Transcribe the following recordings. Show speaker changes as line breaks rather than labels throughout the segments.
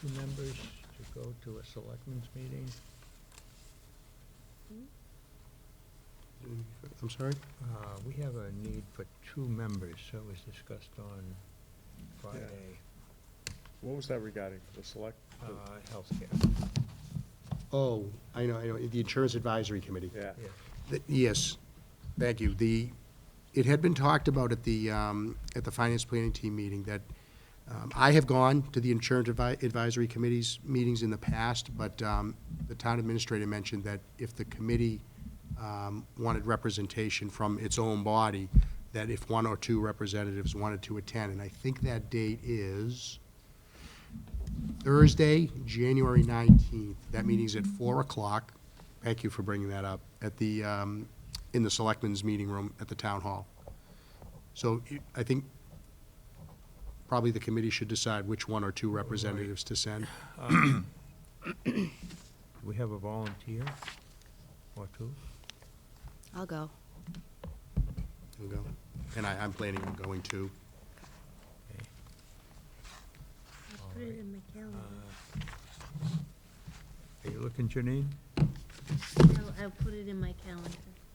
two members to go to a selectmen's meeting?
I'm sorry?
Uh, We have a need for two members, so it was discussed on Friday,
What was that regarding, the select?
uh,
the-
healthcare.
Oh, I know, I know, the Insurance Advisory Committee.
Yeah,
Yeah.
Th- Yes, thank you. The, it had been talked about at the, um, at the Finance Planning Team meeting that um, I have gone to the Insurance Advi- Advisory Committee's meetings in the past, but um, the town administrator mentioned that if the committee um, wanted representation from its own body, that if one or two representatives wanted to attend, and I think that date is Thursday, January 19th. That meeting's at 4 o'clock. Thank you for bringing that up, at the, um, in the Selectmen's Meeting Room at the Town Hall. So you- I think probably the committee should decide which one or two representatives to send.
Do we have a volunteer or two?
I'll go.
We'll go. And I, I'm planning on going to.
Okay.
Put it in my calendar.
Uh, Are you looking, Janine?
I'll, I'll put it in my calendar.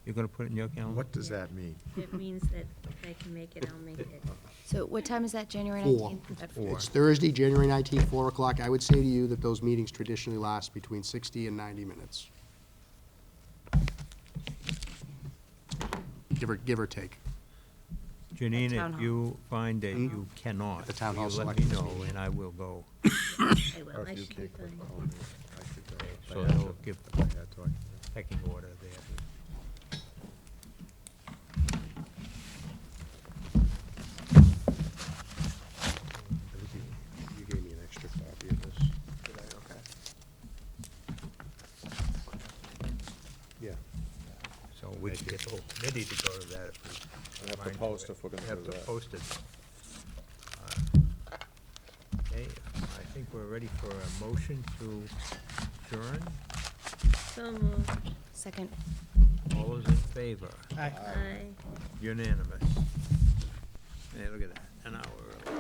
You're gonna put it in your calendar?
What does that mean?
It means that if I can make it, I'll make it.
So what time is that, January
Four.
19th? At four.
It's Thursday, January 19th, 4 o'clock. I would say to you that those meetings traditionally last between 60 and 90 minutes. Give or, give or take.
Janine,
At town
if
hall.
you find that you cannot,
At Mm-hmm. the town hall
you let me
selectmen's
know,
meeting.
and I will go.
I will,
Or
I
if you
should be
can't click
fine.
on it, I could go if I
So
had to-
they'll give-
if I had to, I could go.
Pecking order there.
I think You you gave me an extra copy of this. Did I? Okay. Yeah.
So we can get the whole committee to go to that if we.
We'll have to
mind
post
it.
if we're gonna do
Have to
that.
post it. Uh, Okay, I think we're ready for a motion to adjourn.
So moved.
Second.
All those in favor?
Aye.
Unanimous. Hey, look at that, an hour early.